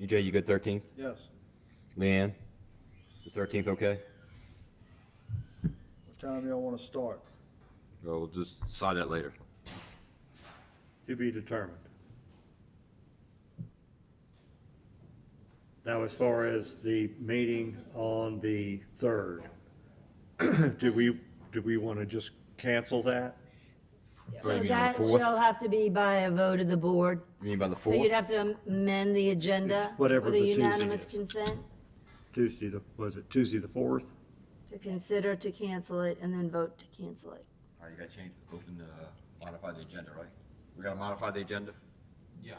EJ, you good thirteenth? Yes. Leanne? The thirteenth, okay? What time y'all want to start? We'll just decide that later. To be determined. Now, as far as the meeting on the third, do we, do we want to just cancel that? What do you So mean, on the that fourth? shall have to be by a vote of the board. You mean by the So you'd fourth? have to amend the agenda It's with whatever a the Tuesday unanimous is. consent Tuesday, the- was it Tuesday the fourth? to consider to cancel it and then vote to cancel it. All right, you gotta change, open, uh, modify the agenda, right? We gotta modify the agenda? Yeah,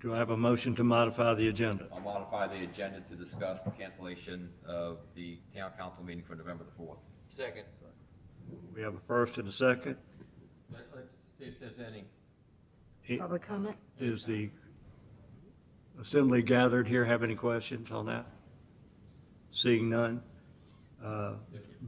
Do I have a motion to modify the agenda? I'll modify the agenda to discuss the cancellation of the town council meeting for November the fourth. second, We have a first and a second. let, let's see if there's any. I- Public comment? Is the assembly gathered here have any questions on that? Seeing none, uh,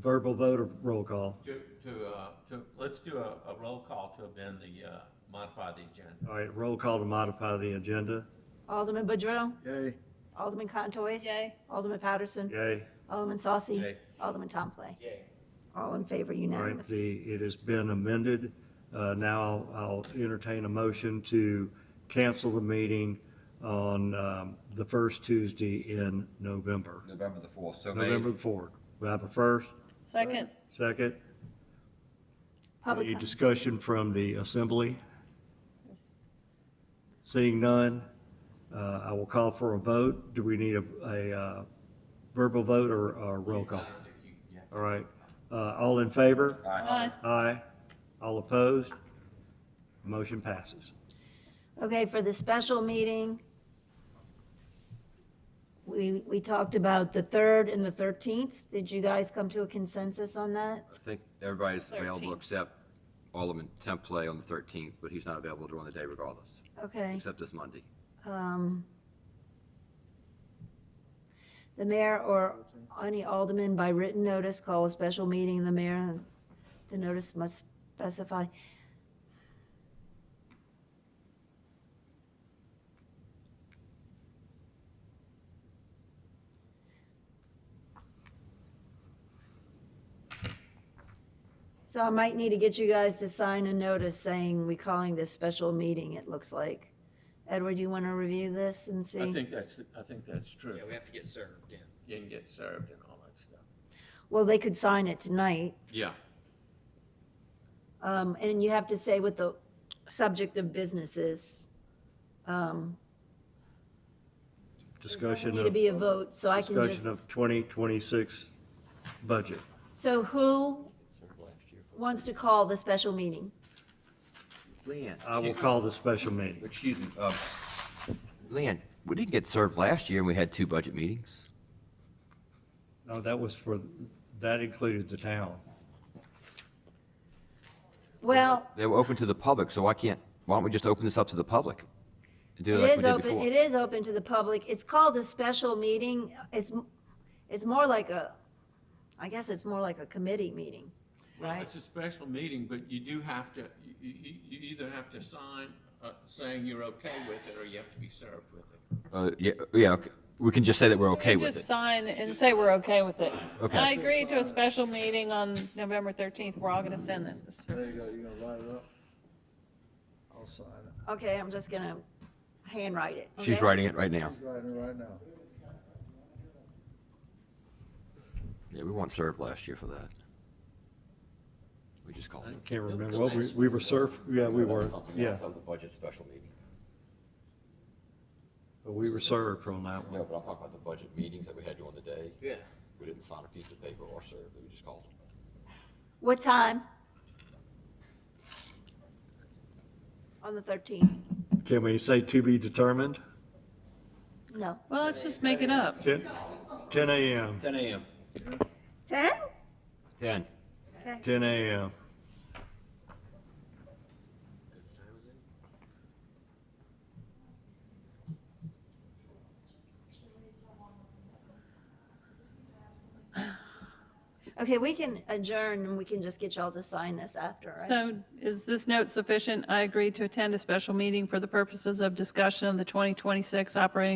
verbal vote or roll call? To, to, uh, to, let's do a, a roll call to amend the, uh, modify the agenda. All right, roll call to modify the agenda. Alderman Boudreaux? Yay. Alderman Contois? Yay. Alderman Patterson? Yay. Alderman Saucy? Yay. Alderman Tomplay? Yay. All in favor, All right, unanimous. the, it has been amended. Uh, Now I'll entertain a motion to cancel the meeting on um, the first Tuesday in November, November the fourth, so made. November the 4th. We have a first, Second, second. Public Any comment? discussion from the assembly? Seeing none, uh, I will call for a vote. Do we need a- a uh, verbal vote or a roll call? All right, Uh, all in favor? Uh, aye. Aye. All opposed? Motion passes. Okay, for the special meeting, we, we talked about the 3rd and the 13th. Did you guys come to a consensus on that? I think everybody's available 13th. except Alderman Templey on the thirteenth, but he's not available during the day regardless, Okay. except this Monday. um, The mayor or any alderman by written notice call a special meeting of the mayor, and the notice must specify. So I might need to get you guys to sign a notice saying we calling this special meeting, it looks like. Edward, you want to review this and see? I think that's, I think that's true. Yeah, we have to get served, yeah. You can get served and all that stuff. Well, they could sign it tonight, Yeah. um, and you have to say what the subject of business is. Um, Discussion Need to of, be a vote, so I can discussion just, of 2026 budget. so who wants to call the special meeting? Leanne. I will call the special meeting. Excuse me, um, Leanne, we didn't get served last year and we had two budget meetings. No, that was for, that included the town. Well, They were open to the public, so why can't, why don't we just open this up to the public? And do it it like we is did open, before. it is open to the public, it's called a special meeting, it's, m- it's more like a, I guess it's more like a committee meeting, right? It's a special meeting, but you do have to, you, you, you either have to sign, uh, saying you're okay with it, or you have to be served with it. Uh, yeah, yeah, okay. we can just say that we're okay with Just it. sign and say we're okay with it. Okay. I agree to a special meeting on November 13th. We're all going to send this. There you go. You gonna write it up? I'll sign it. Okay, I'm just gonna handwrite it. She's okay? writing it right now. He's writing it right now. Yeah, we weren't served last year for that. We just called I it. can't remember what we, we were served, yeah, we were, yeah, the budget special meeting. but we were served from that one. No, but I'm talking about the budget meetings that we had during the day. Yeah. We didn't sign a piece of paper or serve, we just called it. What time? On the 13th? Can we say to be determined? No. Well, let's just make it up. 10, 10 a.m., Ten AM. 10? Ten. 10 a.m. Okay, we can adjourn and we can just get y'all to sign this after, right? So is this note sufficient? I agree to attend a special meeting for the purposes of discussion of the 2026 operating